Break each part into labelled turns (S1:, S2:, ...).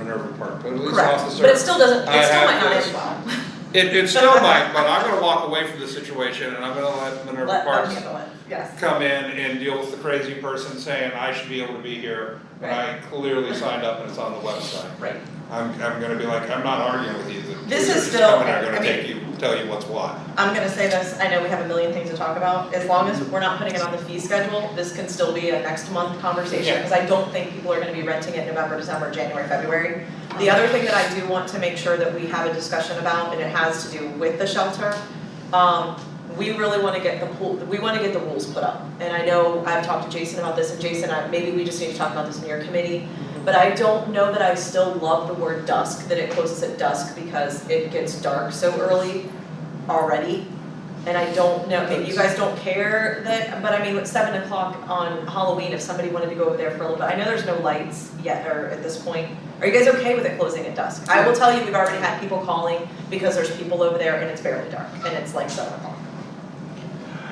S1: Irving Park, but at least
S2: Correct,
S1: off the surface.
S2: but it still doesn't,
S1: I
S2: it still
S1: have
S2: might not
S1: this-
S2: end well.
S1: It, it still might, but I'm gonna walk away from the situation and I'm gonna let Minerva
S2: Let them
S1: Parks
S2: handle it, yes.
S1: come in and deal with the crazy person saying, I should be able to be here, when I clearly signed up and it's on the website.
S2: Right,
S1: I'm, I'm gonna be like, I'm not arguing with you, the
S2: This is
S1: researchers
S2: still-
S1: coming, I'm
S2: I
S1: gonna
S2: mean-
S1: take you, tell you what's what.
S2: I'm gonna say this, I know we have a million things to talk about, as long as we're not putting it on the fee schedule, this can still be a next month conversation,
S1: Yeah.
S2: because I don't think people are gonna be renting it November, December, January, February. The other thing that I do want to make sure that we have a discussion about, and it has to do with the shelter, um, we really wanna get the pool, we wanna get the rules put up. And I know I've talked to Jason about this, and Jason, I, maybe we just need to talk about this in your committee, but I don't know that I still love the word dusk, that it closes at dusk, because it gets dark so early already. And I don't know, maybe you guys don't care that, but I mean, at seven o'clock on Halloween, if somebody wanted to go over there for a little bit, I know there's no lights yet or at this point. Are you guys okay with it closing at dusk? I will tell you, we've already had people calling because there's people over there and it's barely dark and it's like seven o'clock.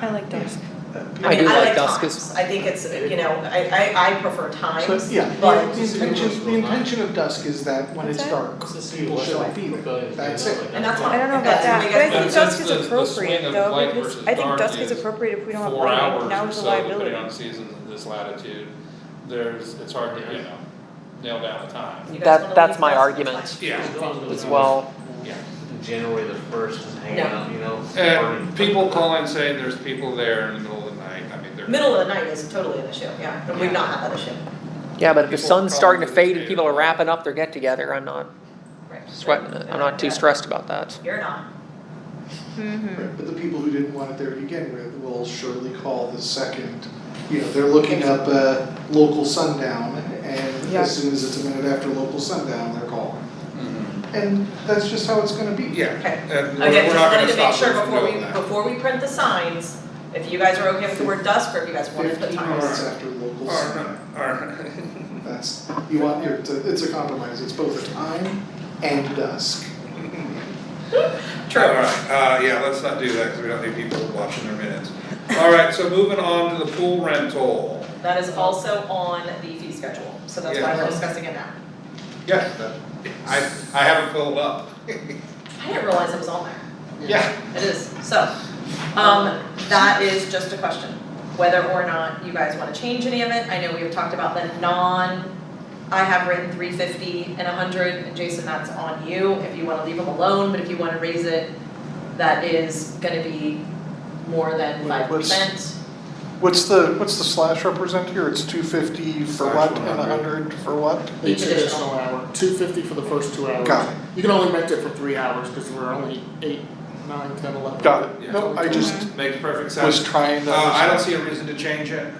S3: I like dusk.
S2: I mean,
S3: do
S2: I
S3: like
S2: like
S3: dusk is-
S2: times, I think it's, you know, I I I prefer
S4: So,
S2: times,
S4: yeah,
S2: but
S4: the the intention, the intention of dusk is that when it's
S3: What's that?
S4: dark, people shouldn't be there, that's it.
S2: and that's
S3: I
S2: fine,
S3: don't know
S2: if
S3: about
S2: that's
S3: that,
S2: what we
S3: but I
S2: guys
S3: think
S1: But
S2: do.
S3: dusk
S1: since
S3: is
S1: the- the swing
S3: appropriate
S1: of
S3: though,
S1: light
S3: because
S1: versus
S3: I think
S1: dark
S3: dusk is
S1: is
S3: appropriate if we don't have
S1: four
S3: lighting,
S1: hours
S3: now
S1: or
S3: is a
S1: so,
S3: liability.
S1: depending on seasons in this latitude, there's, it's hard to, you know, nail down the time.
S2: You guys
S5: That-
S2: wanna
S5: that's
S2: leave
S5: my
S2: dusk, it's
S5: argument.
S2: fine.
S1: Yeah,
S5: as well.
S1: Yeah.
S6: January the first, just hanging
S2: No.
S6: out, you know. party.
S1: and Uh, people calling saying there's people there in the middle of the night, I mean, they're.
S2: Middle of the night is totally an issue, yeah, and we've not had that issue,
S5: Yeah, but if the
S1: People
S5: sun's starting to
S1: probably
S5: fade and people are wrapping up their get together, I'm not
S2: right?
S5: sweating it. I'm not too
S2: Yeah.
S5: stressed about that.
S2: You're not.
S3: Mm-hmm.
S4: But the people who didn't want it there to begin with will surely call the second, you know, they're looking up uh local sundown and
S3: Yeah.
S4: as soon as it's a minute after local sundown, they're calling.
S1: Mhm.
S4: And that's just how it's gonna be.
S1: Yeah,
S2: Okay.
S1: and we're
S2: Again,
S1: we're
S2: just
S1: not
S2: wanted
S1: gonna
S2: to make
S1: stop
S2: sure
S1: them from
S2: before we,
S1: doing that.
S2: before we print the signs, if you guys are okay with the word dusk, or if you guys want to put
S4: Fifteen
S2: times.
S4: minutes after local
S1: Or
S4: sundown,
S1: not, or-
S4: that's, you want, your- it's a- it's a compromise, it's both time and dusk.
S1: All right, uh, yeah, let's not do that, because we don't need people watching their minutes. All right, so moving on to the pool rental.
S2: That is also on the fee schedule, so that's why
S1: Yeah.
S2: we're discussing it now.
S1: Yes, that- I, I haven't filled up.
S2: I didn't realize it was on there.
S1: Yeah,
S2: It is, so, um, that is just a question, whether or not you guys wanna change any of it, I know we've talked about the non, I have written three fifty and hundred, and Jason, that's on you, if you wanna leave them alone, but if you wanna raise it, that is gonna be more than
S4: Wait,
S2: five
S4: what's-
S2: percent.
S4: What's the, what's the slash represent here? It's two fifty for
S1: Slash
S4: what and
S1: 100.
S4: hundred for what?
S7: Each additional hour, two fifty for the first two hours.
S4: Got it.
S7: You can only rent it for three hours, cause we're only eight, nine, ten, eleven.
S4: Got
S1: Yeah.
S4: it. No, I just
S1: makes perfect
S4: was
S1: sense.
S4: trying
S1: Uh,
S4: to.
S1: I don't see a reason to change it.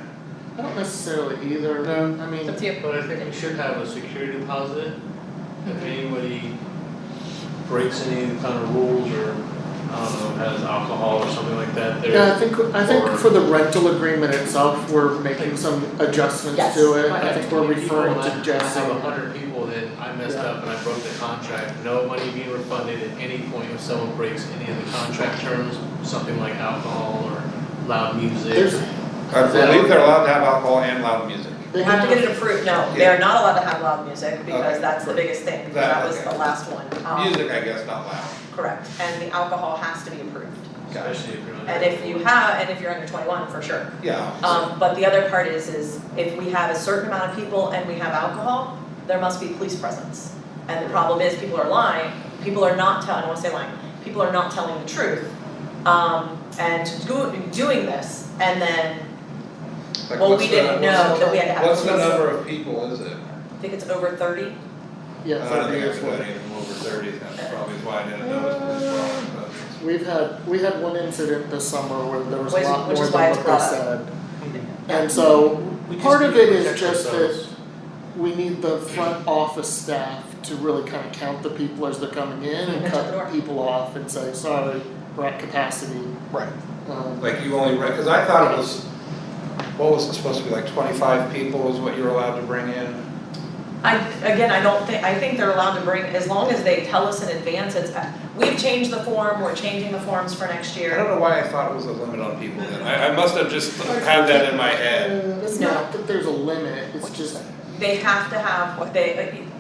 S7: I don't necessarily either,
S4: No.
S7: I mean,
S2: That's you.
S6: But I think we should have a security deposit, if anybody breaks any kind of rules or, I don't know, has alcohol or something like that, they're.
S7: yeah, I think, I
S6: Or-
S7: think for the rental agreement itself, we're making some adjustments
S2: Yes.
S7: to it,
S6: I
S7: I
S6: have
S7: think we're
S6: 20 people
S7: referring
S6: and
S7: to
S6: I-
S7: Jesse.
S6: I have a hundred people that I messed
S7: Yeah.
S6: up and I broke the contract, no money being refunded at any point if someone breaks any of the contract terms, something like alcohol or loud music.
S7: There's-
S1: I believe they're allowed to have alcohol and loud music.
S2: They have to get it approved, no, they are not allowed to have loud music,
S1: Okay.
S2: because that's the biggest thing,
S1: That-
S2: that was
S1: okay.
S2: the last one, um,
S1: Music, I guess, not loud.
S2: correct, and the alcohol has to be approved.
S6: Especially if you're under.
S2: And if you have, and if you're under twenty-one, for sure.
S1: Yeah.
S2: Um, but the other part is, is if we have a certain amount of people and we have alcohol, there must be police presence. And the problem is, people are lying, people are not telling, I don't wanna say lying, people are not telling the truth. Um, and do, doing this, and then,
S1: Like,
S2: well,
S1: what's
S2: we
S1: the-
S2: didn't know that we had to have
S1: What's
S2: police.
S1: the number of people, is it?
S2: I think it's over thirty,
S7: Yeah,
S1: I don't
S7: thirty
S1: think
S7: years
S1: I've got any of them over thirty, that's probably why I didn't notice this one, but-
S7: We've had, we had one incident this summer where there was a
S2: Which-
S7: lot
S2: which
S7: more
S2: is
S7: than
S2: why it's
S7: what they
S2: brought up.
S7: said.
S3: Mm-hmm.
S7: And so, part of it is just that we need the front office staff to really kind of count the people as they're coming in and
S2: That's the door.
S7: cut people off and say, sorry, we're at capacity.
S4: Right.
S7: Um,
S1: Like you only, because I thought it was, what was it supposed to be, like twenty-five people is what you were allowed to bring in?
S2: I, again, I don't think, I think they're allowed to bring, as long as they tell us in advance, it's, we've changed the form, we're changing the forms for next
S1: I
S2: year.
S1: don't know why I thought it was a limit on people then, I, I must have just had that in my head.
S7: uh, It's
S2: No.
S7: not that there's a limit, it's just,
S2: They have to have, they,